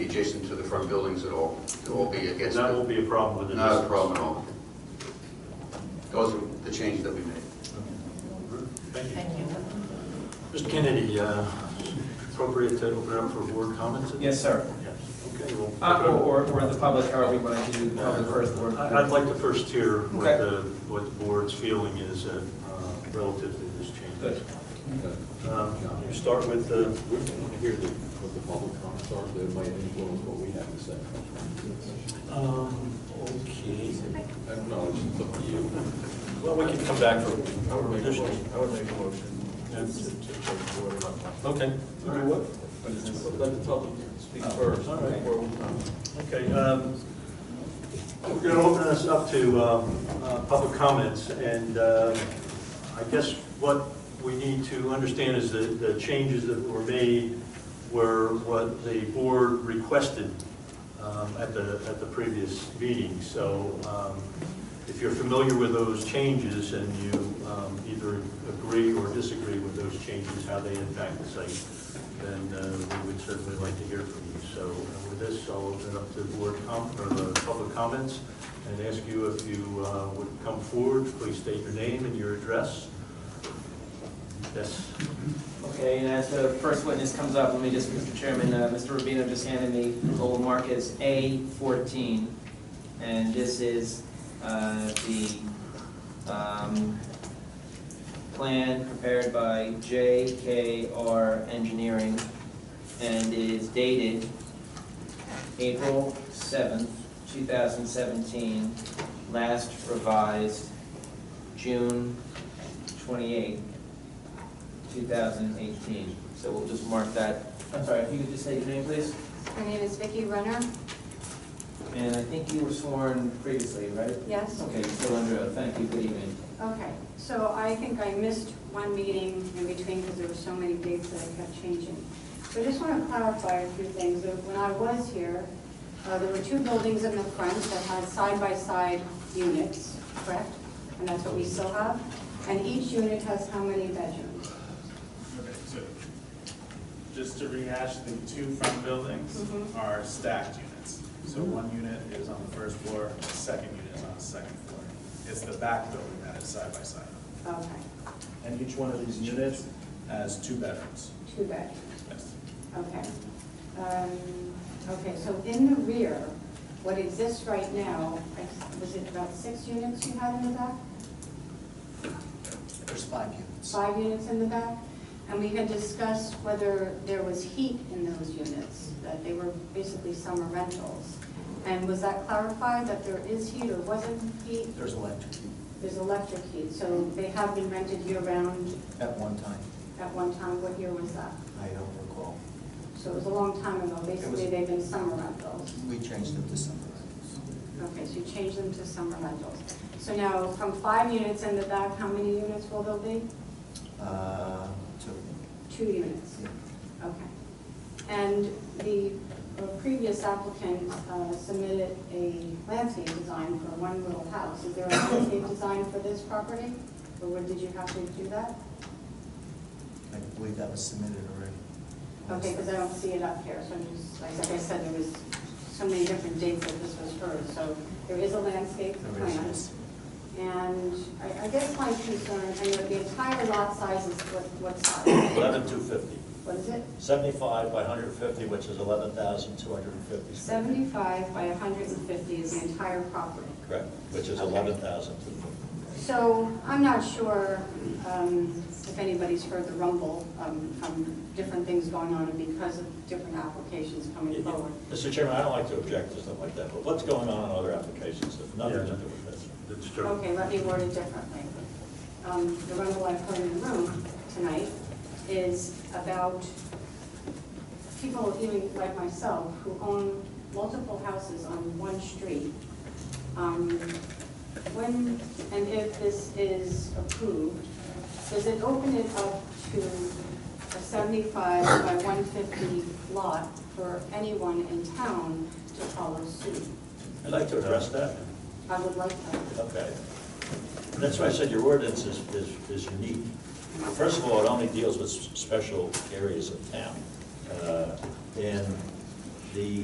adjacent to the front buildings at all. It will be against, That won't the- be a problem with the not a distance. problem at all. Those are the changes that we made. Thank you. Thank you. Mr. Kennedy, uh, appropriate to open up for board comments? Yes, sir. Yes. Okay, well. Uh, Or, or- or the public, however you want to do the uh, public first, or... I- I'd like to first hear what Okay. the, what the board's feeling is uh, uh, relative to this change. Good. Um, You start with the, We want to hear the- what the public comments are, that might influence what we have to say. um, okay, I acknowledge it's up to you. well, we can come back for I would make a additional. motion, I would make a motion to, Yes. to take the order up. Okay. What? Let the public speak first. all right. before we- Uh, Okay, um, we're going to open this up to um, uh, public comments, and uh, I guess what we need to understand is that the changes that were made were what the board requested um, at the, at the previous meeting. So um, if you're familiar with those changes and you um, either agree or disagree with those changes, how they impact the site, then uh, we would certainly like to hear from you. So uh, with this, I'll open it up to board com, or the public comments, and ask you if you uh, would come forward, please state your name and your address. Yes. Okay, and as the first witness comes up, let me just, Mr. Chairman, uh, Mr. Rubino just handed me goal mark as A14, and this is uh, the um, plan prepared by JKR Engineering, and it is dated April 7th, 2017, last revised June 28th, 2018. So we'll just mark that. I'm sorry, if you could just say your name, please? My name is Vicki Runner, And I think you were sworn previously, right? yes? Okay, you're still under oath. Thank you. Good evening. Okay, so I think I missed one meeting in between because there were so many dates that I kept changing. So I just want to clarify a few things. Uh, When I was here, uh, there were two buildings in the front that had side-by-side units, correct? And that's what we still have? And each unit has how many bedrooms? Okay, so, just to rehash, the two front buildings Mhm. are stacked units. So one unit is on the first floor, the second unit is on the second floor. It's the back building that is side by side. Okay, And each one of these units has two bedrooms. two bedrooms. Yes. Okay. Um, Okay, so in the rear, what exists right now, I- was it about six units you had in the back? There's five units. Five units in the back? And we had discussed whether there was heat in those units, that they were basically summer rentals. And was that clarified, that there is heat or wasn't heat? There's electric heat There's electric heat, so they have been rented year-round at one time. at one time. What year was that? I don't recall. So it was a long time ago. Basically, they've been summer rentals. We changed it to summer. Okay, so you change them to summer rentals. So now, from five units in the back, how many units will there be? Uh, to, Two units, yeah. okay. And the uh, previous applicant uh, submitted a landscape design for one little house. Is there a landscape design for this property? Or what, did you have to do that? I believe that was submitted already. Okay, because I don't see it up here, so I'm just, like I said, there was so many different dates that this was heard. So there is a landscape There is, plan. yes. And I, I guess my concern, I know the entire lot size is what, what size? Eleven two fifty. What is it? Seventy-five by hundred and fifty, which is eleven thousand two hundred and fifty. Seventy-five by hundred and fifty is the entire property. Correct, which is Okay. eleven thousand two fifty. So I'm not sure um, if anybody's heard the rumble um, from different things going on and because of different applications coming forward. Mr. Chairman, I don't like to object to stuff like that, but what's going on in other applications that have nothing to do with this? That's true. Okay, let me word it differently. Um, The rumble I've heard in the room tonight is about people, even like myself, who own multiple houses on one street. Um, When, and if this is approved, does it open it up to a 75 by 150 lot for anyone in town to follow suit? I'd like to address that. I would like that. Okay. That's why I said your ordinance is, is, is unique. First of all, it only deals with s- special areas of town. Uh, And the